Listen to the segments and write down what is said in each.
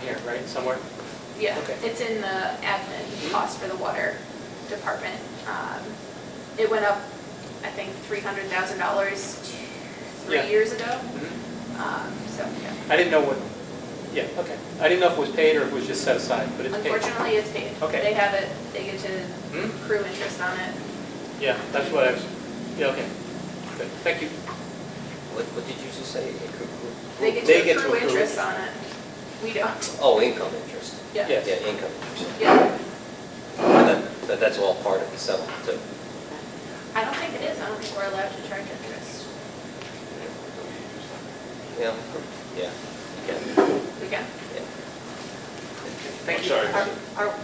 here, right, somewhere? Yeah, Okay. it's in the admin cost for the water department. Um, It went up, I think, three hundred thousand dollars Yeah. three years ago. Mhm. Um, So, yeah, I didn't know what, yeah, okay. I didn't know if it was paid or if it was just set aside, but it's paid. unfortunately, it's paid. Okay. They have it, they get to Hmm? accrue interest on it. Yeah, that's what I was, yeah, okay. Good, thank you. What, what did you just say? Accru- They get They get to to accrue accrue interest on it. We don't, Oh, income interest. yeah. Yes. Yeah, income interest. Yeah, And that- that- that's all part of the settlement too. I don't think it is, I don't think we're allowed to charge interest. Yeah, yeah, you can, We can. yeah. Thank you. sorry. Our- our-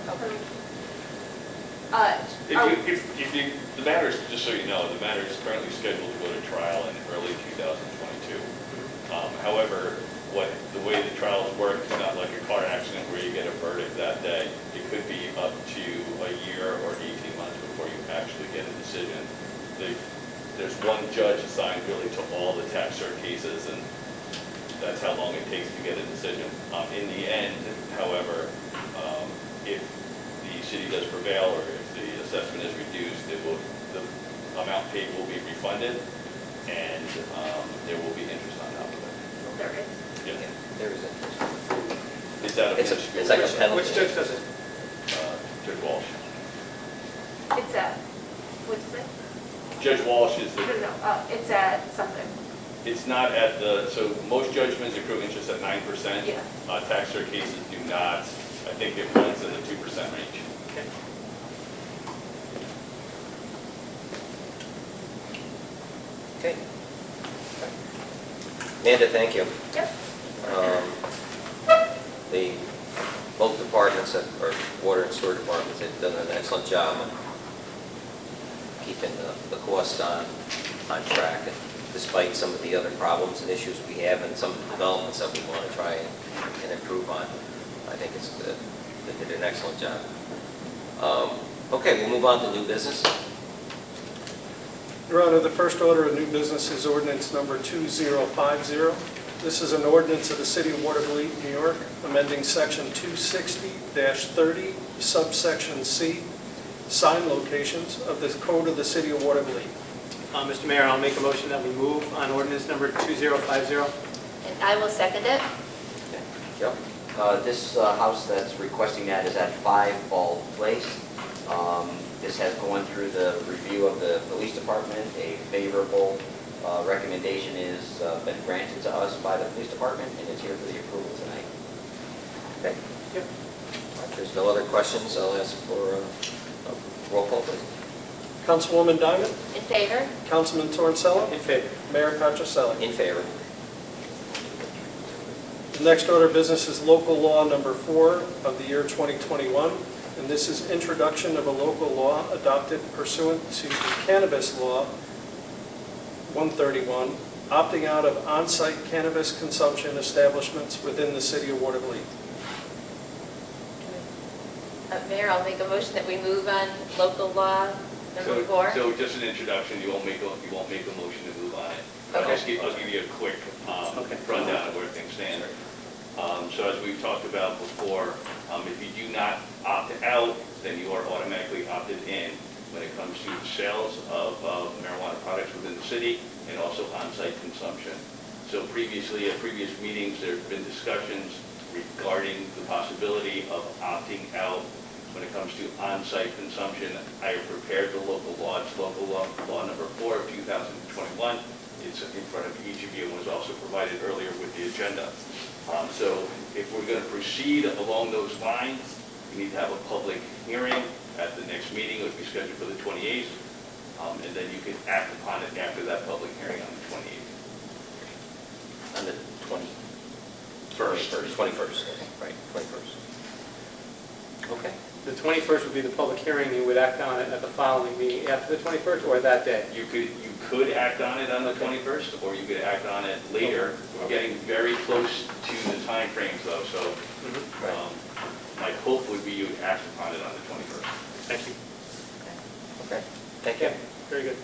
Uh, If you, if, if you, the matter is, just so you know, the matter is currently scheduled to go to trial in early 2022. Um, However, what, the way the trials work, it's not like a car accident where you get a verdict that day. It could be up to a year or 18 months before you actually get a decision. The- There's one judge assigned really to all the tax cert cases, and that's how long it takes to get a decision. Um, In the end, however, um, if the city does prevail or if the assessment is reduced, it will, the amount paid will be refunded and um, there will be interest on top of there is. it. Yeah, Yeah. There is interest. Is that a? It's a- minuscule it's like a risk? penalty. Which judge does it? Uh, Judge Walsh. It's at, what's it? Judge Walsh is No, the, no, uh, it's at something. it's not at the, so most judgments accrue interest at nine percent. Uh, Yeah. Tax cert cases do not. I think it runs in the two percent range. Okay. Okay. Amanda, thank you. Yep. Um, The, both departments, that- or water and sewer departments, have done an excellent job on keeping the- the costs on, on track and despite some of the other problems and issues we have and some of the developments that we want to try and and improve on. I think it's, good. they did an excellent job. Um, Okay, we'll move on to new business. Your Honor, the first order of new business is ordinance number 2050. This is an ordinance of the City of Waterville, New York, amending Section 260-30 subsection C, sign locations of the Code of the City of Waterville. Uh, Mr. Mayor, I'll make a motion that we move on ordinance number 2050. And I will second it. Joe? Uh, This uh, house that's requesting that is at 5 Ball Place. Um, This has gone through the review of the police department. A favorable uh, recommendation is uh, been granted to us by the police department, and it's here for the approval tonight. Okay. If there's no other questions, I'll ask for uh, a roll call, please. Councilwoman Diamond, In favor? Councilman Torricella, In favor. Mayor Patrascelli. In favor? The next order of business is local law number four of the year 2021, and this is introduction of a local law adopted pursuant to cannabis law 131, opting out of on-site cannabis consumption establishments within the city of Waterville. Uh, Mayor, I'll make a motion that we move on local law number So- four. So just an introduction, you won't make, a- you won't make a motion to move on it. I'll just give, I'll give you a quick um, Okay. rundown of where things stand. Um, So as we've talked about before, um, if you do not opt out, then you are automatically opted in when it comes to the sales of uh, marijuana products within the city and also on-site consumption. So previously, at previous meetings, there have been discussions regarding the possibility of opting out when it comes to on-site consumption. I have prepared the local law, it's local law, law number four of 2021. It's in front of each of you and was also provided earlier with the agenda. Um, So if we're going to proceed along those lines, we need to have a public hearing at the next meeting, which we scheduled for the 28th, um, and then you can act upon it after that public hearing on the 28th. On the 20... First. 21st, right, 21st. Okay. The 21st would be the public hearing, you would act on it at the following meeting after the 21st or that day? You could, you could act on it on the 21st, or you could act on it later. We're getting very close to the timeframes though, so Mm-hmm. um, my hope would be you would act upon it on the 21st. Thank you. Okay, thank you. Very good.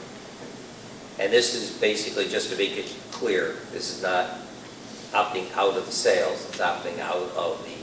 And this is basically, just to make it clear, this is not opting out of the sales, it's opting out of the